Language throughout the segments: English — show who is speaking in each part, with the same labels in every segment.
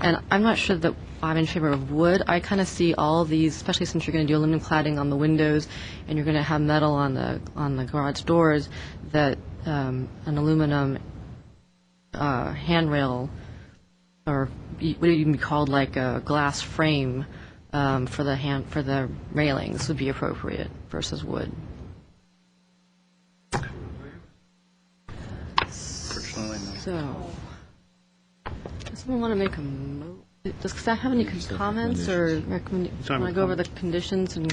Speaker 1: And I'm not sure that I'm in favor of wood. I kind of see all these, especially since you're going to do aluminum cladding on the windows and you're going to have metal on the, on the garage doors, that um, an aluminum uh, handrail or y- what do you even be called, like a glass frame um, for the hand, for the railings would be appropriate versus wood.
Speaker 2: Personally, no.
Speaker 1: So, does someone want to make a mo, does staff have any comments or recommend,
Speaker 2: Time
Speaker 1: want to
Speaker 2: for
Speaker 1: go over the conditions and,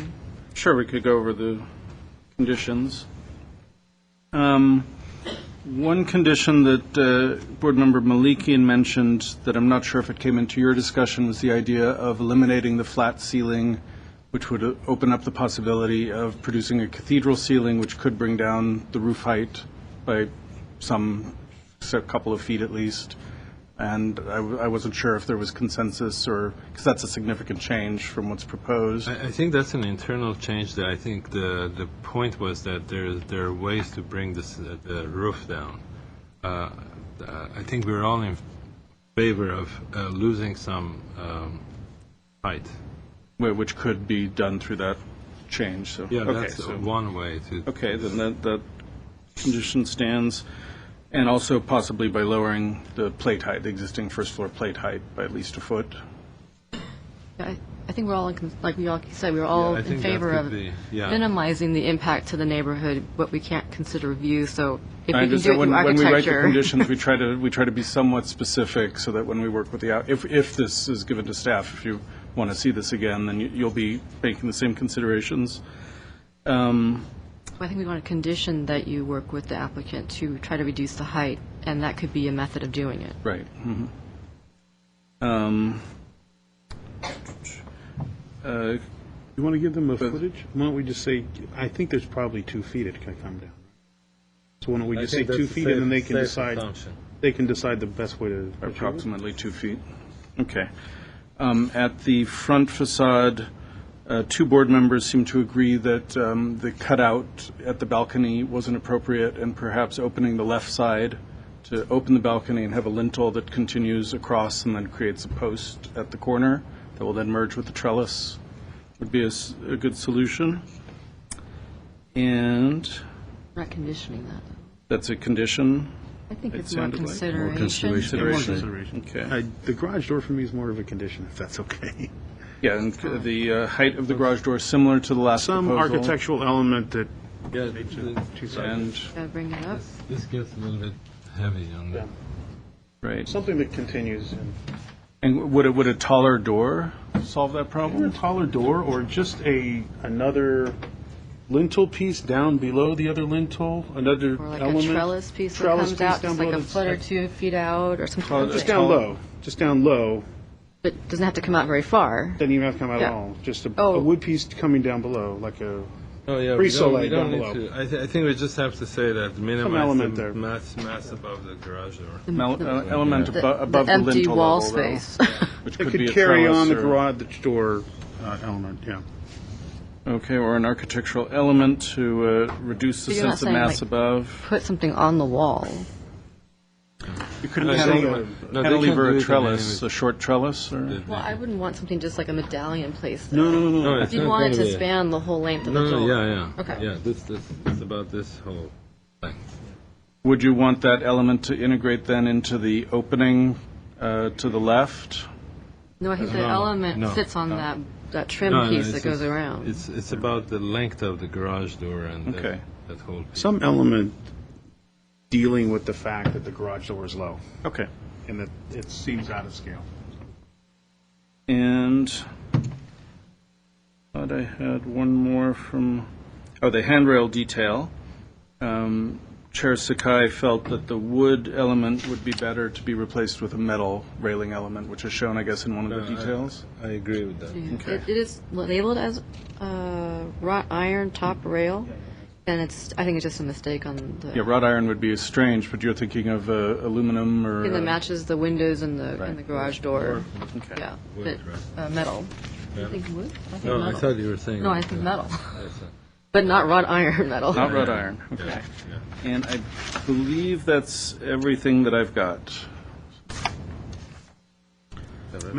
Speaker 2: Sure, we could go over the conditions. Um, One condition that uh, Board Member Malikian mentioned, that I'm not sure if it came into your discussion, was the idea of eliminating the flat ceiling, which would uh, open up the possibility of producing a cathedral ceiling, which could bring down the roof height by some, so a couple of feet at least. And I w- I wasn't sure if there was consensus, or, because that's a significant change from what's proposed.
Speaker 3: I I think that's an internal change that I think the, the point was that there, there are ways to bring this, uh, the roof down. Uh, uh, I think we're all in favor of uh, losing some um, height.
Speaker 2: Wh- Which could be done through that change, so.
Speaker 3: Yeah,
Speaker 2: okay,
Speaker 3: that's
Speaker 2: so-
Speaker 3: uh, one way to.
Speaker 2: Okay, then that, that condition stands, and also possibly by lowering the plate height, the existing first floor plate height by at least a foot.
Speaker 1: I I think we're all, in con- like we all said, we we're
Speaker 3: Yeah,
Speaker 1: all
Speaker 3: I
Speaker 1: in
Speaker 3: think that
Speaker 1: favor
Speaker 3: could
Speaker 1: of
Speaker 3: be- yeah.
Speaker 1: minimizing the impact to the neighborhood, what we can't consider view, so if
Speaker 2: I
Speaker 1: we can
Speaker 2: just-
Speaker 1: do it
Speaker 2: when-
Speaker 1: through
Speaker 2: When we write the
Speaker 1: architecture.
Speaker 2: conditions, we try to, we try to be somewhat specific, so that when we work with the, out- if, if this is given to staff, if you want to see this again, then you- you'll be making the same considerations.
Speaker 1: I think we want a condition that you work with the applicant to try to reduce the height, and that could be a method of doing it.
Speaker 2: Right. mhm. Um, uh,
Speaker 4: You want to give them a
Speaker 2: But-
Speaker 4: footage? Why don't we just say, I think there's probably two feet it can come down. So why don't we
Speaker 3: I
Speaker 4: just say
Speaker 3: think
Speaker 4: two
Speaker 3: that's a
Speaker 4: feet and then they
Speaker 3: safe-
Speaker 4: can
Speaker 3: safe
Speaker 4: decide,
Speaker 3: assumption.
Speaker 4: they can decide the best way to.
Speaker 2: Approximately two feet. Okay. Um, At the front facade, uh, two board members seem to agree that um, the cutout at the balcony wasn't appropriate, and perhaps opening the left side to open the balcony and have a lintel that continues across and then creates a post at the corner that will then merge with the trellis would be a s- a good solution. And
Speaker 1: Not conditioning that.
Speaker 2: that's a condition.
Speaker 1: I think
Speaker 2: It
Speaker 1: it's more
Speaker 2: sounded like more
Speaker 1: consideration.
Speaker 2: Consideration.
Speaker 4: Consideration.
Speaker 2: Okay.
Speaker 4: I- The garage door for me is more of a condition, if that's okay.
Speaker 2: Yeah, and c- the uh, height of the garage door is similar to the last
Speaker 4: Some
Speaker 2: proposal.
Speaker 4: architectural element that,
Speaker 3: Yeah,
Speaker 4: two sides.
Speaker 2: And,
Speaker 1: Gotta bring it up.
Speaker 3: this- this gets a little bit heavy on the.
Speaker 2: right.
Speaker 4: Something that continues. and-
Speaker 2: And would a, would a taller door solve that
Speaker 4: Either a
Speaker 2: problem?
Speaker 4: taller door or just a, another lintel piece down below the other lintel, another
Speaker 1: Or like a
Speaker 4: element.
Speaker 1: trellis piece that
Speaker 4: Trellis
Speaker 1: comes
Speaker 4: piece
Speaker 1: out,
Speaker 4: down
Speaker 1: just like
Speaker 4: below
Speaker 1: a
Speaker 4: that's-
Speaker 1: foot or two feet out, or something
Speaker 2: Oh,
Speaker 1: like
Speaker 4: Just
Speaker 1: that.
Speaker 4: down low, just down low.
Speaker 1: But doesn't have to come out very far.
Speaker 4: Doesn't even have to come out at
Speaker 1: Yeah.
Speaker 4: all. Just a,
Speaker 1: Oh.
Speaker 4: a wood piece coming down below, like a.
Speaker 3: Oh, yeah, we don't,
Speaker 4: Pre-soleil
Speaker 3: we don't
Speaker 4: down
Speaker 3: need
Speaker 4: below.
Speaker 3: to, I, thi- I think we just have to say that
Speaker 4: element
Speaker 3: minimize the
Speaker 4: there.
Speaker 3: mass, mass above the garage door.
Speaker 2: Mel- uh, Element
Speaker 1: The-
Speaker 2: abo- above the
Speaker 1: empty
Speaker 2: lintel
Speaker 1: wall
Speaker 2: level, though,
Speaker 1: space.
Speaker 2: Which
Speaker 4: It
Speaker 2: could be
Speaker 4: could
Speaker 2: a
Speaker 4: carry on the
Speaker 2: trellis or-
Speaker 4: garage door uh, element. Yeah.
Speaker 2: Okay, or an architectural element to uh, reduce the
Speaker 1: So you're not
Speaker 2: sense of
Speaker 1: saying, like-
Speaker 2: mass above.
Speaker 1: Put something on the wall.
Speaker 2: Uh, You couldn't
Speaker 3: No,
Speaker 4: they
Speaker 2: cantilever
Speaker 3: can- no, they can
Speaker 2: cantilever
Speaker 3: do
Speaker 2: a
Speaker 3: it
Speaker 2: trellis,
Speaker 3: anyway.
Speaker 2: a short trellis, or?
Speaker 1: Well, I wouldn't want something just like a medallion placed there.
Speaker 4: No, no, no,
Speaker 3: No,
Speaker 4: no.
Speaker 3: it's
Speaker 1: You'd
Speaker 3: not
Speaker 1: want it
Speaker 3: gonna
Speaker 1: to
Speaker 3: be-
Speaker 1: span the whole length of the
Speaker 3: No, no,
Speaker 1: door.
Speaker 3: yeah, yeah.
Speaker 1: Okay.
Speaker 3: Yeah, this, this, it's about this whole thing.
Speaker 2: Would you want that element to integrate then into the opening uh, to the left?
Speaker 1: No, I think the
Speaker 3: No,
Speaker 1: element
Speaker 3: no,
Speaker 1: sits on
Speaker 3: no.
Speaker 1: that, that trim
Speaker 3: No, no,
Speaker 1: piece that
Speaker 3: it's-
Speaker 1: goes
Speaker 3: it's-
Speaker 1: around.
Speaker 3: It's, it's about the length of the garage door and that-
Speaker 2: Okay.
Speaker 3: that whole piece.
Speaker 4: Some element dealing with the fact that the garage door is low
Speaker 2: Okay.
Speaker 4: and that it seems out of scale.
Speaker 2: And thought I had one more from, oh, the handrail detail. Um, Chair Sakai felt that the wood element would be better to be replaced with a metal railing element, which is shown, I guess, in one of
Speaker 3: Uh,
Speaker 2: the details.
Speaker 3: I agree with that.
Speaker 1: Yeah.
Speaker 2: okay.
Speaker 1: It it is labeled as uh, wrought iron top rail, and it's, I think it's just a mistake on
Speaker 2: Yeah,
Speaker 1: the,
Speaker 2: wrought iron would be strange, but you're thinking of uh, aluminum or.
Speaker 1: thing that
Speaker 2: uh,
Speaker 1: matches the windows and the, and the garage door.
Speaker 2: okay.
Speaker 1: Yeah, but
Speaker 3: Wood, right.
Speaker 1: uh, metal. You
Speaker 3: Yeah.
Speaker 1: think wood? I think
Speaker 3: No, I
Speaker 1: metal.
Speaker 3: thought you were saying.
Speaker 1: No, I
Speaker 3: that,
Speaker 1: think
Speaker 3: uh,
Speaker 1: metal.
Speaker 3: I thought-
Speaker 1: But not wrought iron metal.
Speaker 2: Not wrought iron, okay.
Speaker 3: yeah.
Speaker 2: And I believe that's everything that I've got.